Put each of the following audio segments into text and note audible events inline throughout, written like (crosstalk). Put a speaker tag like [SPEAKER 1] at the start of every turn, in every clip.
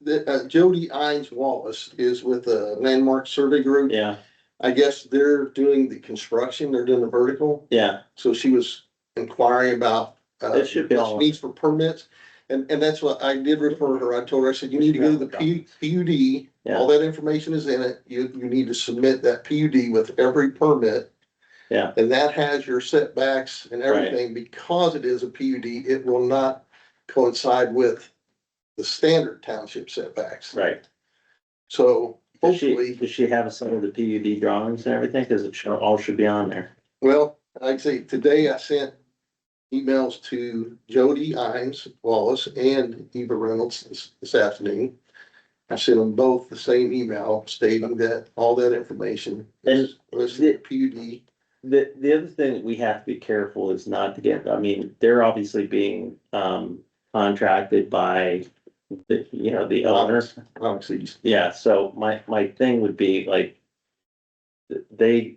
[SPEAKER 1] the, uh, Jody Ines Wallace is with the Landmark Survey Group.
[SPEAKER 2] Yeah,
[SPEAKER 1] I guess they're doing the construction, they're doing the vertical,
[SPEAKER 2] yeah,
[SPEAKER 1] so she was inquiring about. uh,
[SPEAKER 2] It should be on.
[SPEAKER 1] Needs for permits, and, and that's what I did refer her, I told her, I said, you need to go to the P, PUD. All that information is in it, you, you need to submit that PUD with every permit.
[SPEAKER 2] Yeah.
[SPEAKER 1] And that has your setbacks and
[SPEAKER 2] Right.
[SPEAKER 1] everything, because it is a PUD, it will not coincide with the standard township setbacks.
[SPEAKER 2] right.
[SPEAKER 1] So
[SPEAKER 2] Does she,
[SPEAKER 1] hopefully,
[SPEAKER 2] does she have some of the PUD drawings and everything? Cause it should, all should be on there.
[SPEAKER 1] well, like I say, today I sent emails to Jody Imes Wallace and Eva Reynolds this, this afternoon. I sent them both the same email stating that all that information is listed in PUD.
[SPEAKER 2] The, the other thing that we have to be careful is not to get, I mean, they're obviously being, um, contracted by the, you know, the owner.
[SPEAKER 1] Obviously,
[SPEAKER 2] Yeah, so my, my thing would be like, th- they,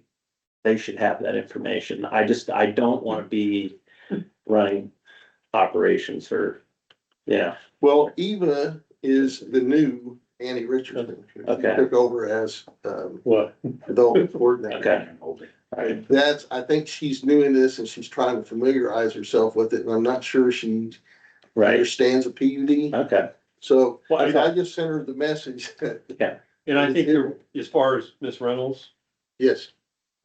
[SPEAKER 2] they should have that information. I just, I don't wanna be running operations for, yeah,
[SPEAKER 1] Well, Eva is the new Annie Richardson.
[SPEAKER 2] Okay.
[SPEAKER 1] Took over as, um,
[SPEAKER 3] What?
[SPEAKER 1] adult coordinator.
[SPEAKER 2] okay. All right.
[SPEAKER 1] That's, I think she's new in this and she's trying to familiarize herself with it, and I'm not sure she
[SPEAKER 2] Right, Uh,
[SPEAKER 1] understands a PUD.
[SPEAKER 2] okay,
[SPEAKER 1] So
[SPEAKER 3] Well,
[SPEAKER 1] I
[SPEAKER 3] and I-
[SPEAKER 1] I just sent her the message.
[SPEAKER 3] and I think you're, as far as Miss Reynolds,
[SPEAKER 1] Yes,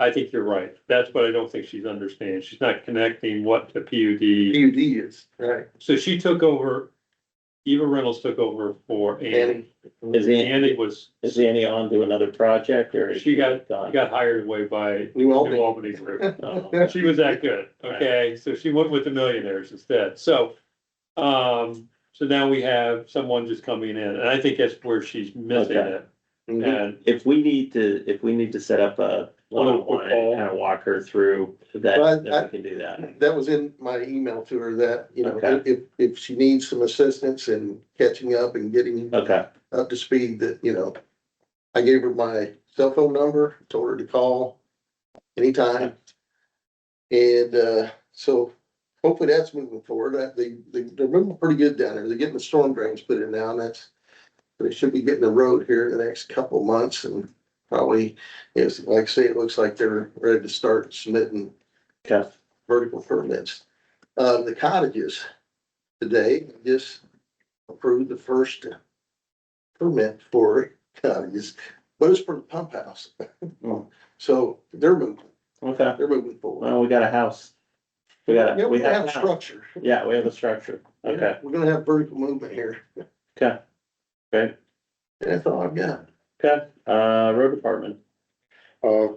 [SPEAKER 3] I think you're right. That's what I don't think she's understanding. She's not connecting what to PUD.
[SPEAKER 1] PUD is, right.
[SPEAKER 3] So she took over, Eva Reynolds took over for Annie.
[SPEAKER 1] Annie,
[SPEAKER 2] is he,
[SPEAKER 3] Annie was,
[SPEAKER 2] is he any on to another project or? is
[SPEAKER 3] She got-
[SPEAKER 2] gone?
[SPEAKER 3] got hired away by
[SPEAKER 1] New
[SPEAKER 3] New
[SPEAKER 1] Albany.
[SPEAKER 3] Albany Group.
[SPEAKER 2] Oh,
[SPEAKER 3] She was that good, okay? So she went with the millionaires instead. So, um, so now we have someone just coming in and I think that's where she's missing it.
[SPEAKER 1] Mhm.
[SPEAKER 3] And
[SPEAKER 2] If we need to, if we need to set up a
[SPEAKER 3] little
[SPEAKER 2] one-on-one and kind of walk her through that,
[SPEAKER 1] But
[SPEAKER 2] then we can do that.
[SPEAKER 1] That was in my email to her that, you know,
[SPEAKER 2] Okay.
[SPEAKER 1] if, if she needs some assistance in catching up and getting
[SPEAKER 2] Okay,
[SPEAKER 1] up to speed that, you know, I gave her my cell phone number, told her to call anytime. And, uh, so hopefully that's moving forward. Uh, They, they, they're moving pretty good down there. They're getting the storm drains put in now and that's, they should be getting the road here in the next couple of months and probably, is, like I say, it looks like they're ready to start submitting
[SPEAKER 2] okay,
[SPEAKER 1] vertical permits. Uh, the cottages today just approved the first permit for cottages, but it's for the pump house.
[SPEAKER 2] Hmm.
[SPEAKER 1] So they're moving,
[SPEAKER 2] okay.
[SPEAKER 1] they're moving forward.
[SPEAKER 2] Well, we got a house. We got
[SPEAKER 1] Yeah,
[SPEAKER 2] a,
[SPEAKER 1] we have a
[SPEAKER 2] house.
[SPEAKER 1] structure.
[SPEAKER 2] Yeah, we have a structure. Okay,
[SPEAKER 1] We're gonna have vertical movement here.
[SPEAKER 2] okay, okay,
[SPEAKER 1] That's all I've got.
[SPEAKER 2] okay. Uh, road department.
[SPEAKER 4] Uh,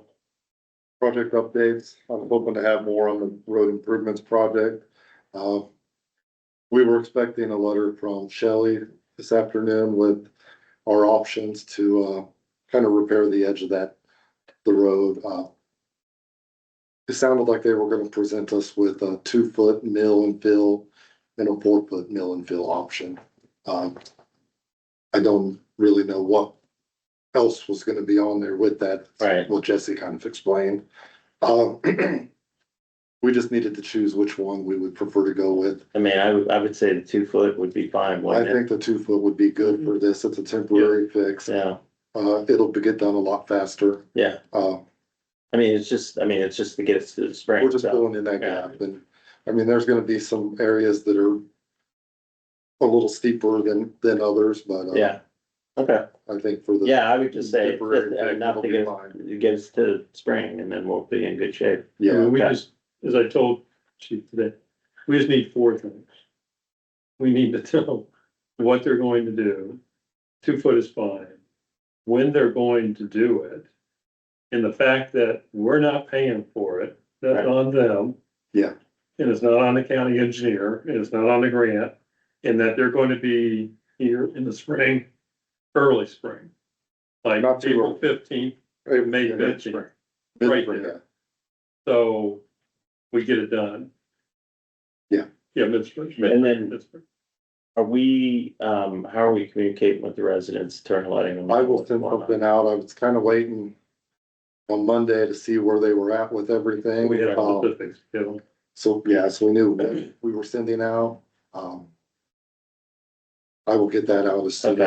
[SPEAKER 4] project updates. I'm hoping to have more on the road improvements project. Uh, we were expecting a letter from Shelley this afternoon with our options to, uh, kind of repair the edge of that, the road. Uh, It sounded like they were gonna present us with a two-foot mill and fill and a four-foot mill and fill option. Um, I don't really know what else was gonna be on there with that
[SPEAKER 2] Right.
[SPEAKER 4] what Jesse kind of explained. Um, (clears throat) we just needed to choose which one we would prefer to go with.
[SPEAKER 2] I mean, I would, I would say the two foot would be fine,
[SPEAKER 4] I
[SPEAKER 2] wouldn't it?
[SPEAKER 4] think the two foot would be good for this. It's a temporary fix.
[SPEAKER 2] Mm-hmm. Yeah,
[SPEAKER 4] Uh, it'll be- get done a lot faster.
[SPEAKER 2] yeah.
[SPEAKER 4] Uh,
[SPEAKER 2] I mean, it's just, I mean, it's just to get us to the
[SPEAKER 4] we're
[SPEAKER 2] spring,
[SPEAKER 4] just
[SPEAKER 2] so,
[SPEAKER 4] filling in that
[SPEAKER 2] Yeah.
[SPEAKER 4] gap and, I mean, there's gonna be some areas that are a little steeper than, than others, but. uh,
[SPEAKER 2] yeah. Okay,
[SPEAKER 4] I think for the.
[SPEAKER 2] yeah, I would just say,
[SPEAKER 4] Temporary
[SPEAKER 2] just, uh,
[SPEAKER 4] fix,
[SPEAKER 2] enough
[SPEAKER 4] it'll
[SPEAKER 2] to
[SPEAKER 4] be
[SPEAKER 2] get,
[SPEAKER 4] fine.
[SPEAKER 2] us- get us to spring and then we'll be in good shape.
[SPEAKER 3] I
[SPEAKER 4] Yeah,
[SPEAKER 3] mean, we
[SPEAKER 2] Okay.
[SPEAKER 3] just, as I told Chief today, we just need four things. We need to (laughs) know what they're going to do, two foot is fine, when they're going to do it. And the fact that we're not paying for it, that's
[SPEAKER 2] Right.
[SPEAKER 3] on them.
[SPEAKER 4] Yeah.
[SPEAKER 3] And it's not on the county engineer, and it's not on the grant, and that they're going to be here in the spring, early spring. Like
[SPEAKER 4] Not too
[SPEAKER 3] April
[SPEAKER 4] early.
[SPEAKER 3] fifteenth,
[SPEAKER 4] Right,
[SPEAKER 3] May
[SPEAKER 4] yeah, that's
[SPEAKER 3] fifteenth. right
[SPEAKER 4] right. Yeah.
[SPEAKER 3] there. So we get it done.
[SPEAKER 4] Yeah.
[SPEAKER 3] Yeah, Midsburg.
[SPEAKER 2] And then-
[SPEAKER 3] Midsburg.
[SPEAKER 2] Are we, um, how are we communicating with the residents, turn letting them? know
[SPEAKER 4] I will
[SPEAKER 2] what's
[SPEAKER 4] send
[SPEAKER 2] going on?
[SPEAKER 4] something out. I was kind of waiting on Monday to see where they were at with everything.
[SPEAKER 3] We have
[SPEAKER 4] Um,
[SPEAKER 3] specifics, Kevin.
[SPEAKER 4] So, yeah, so we knew what we were sending out. Um, I will get that out as soon as.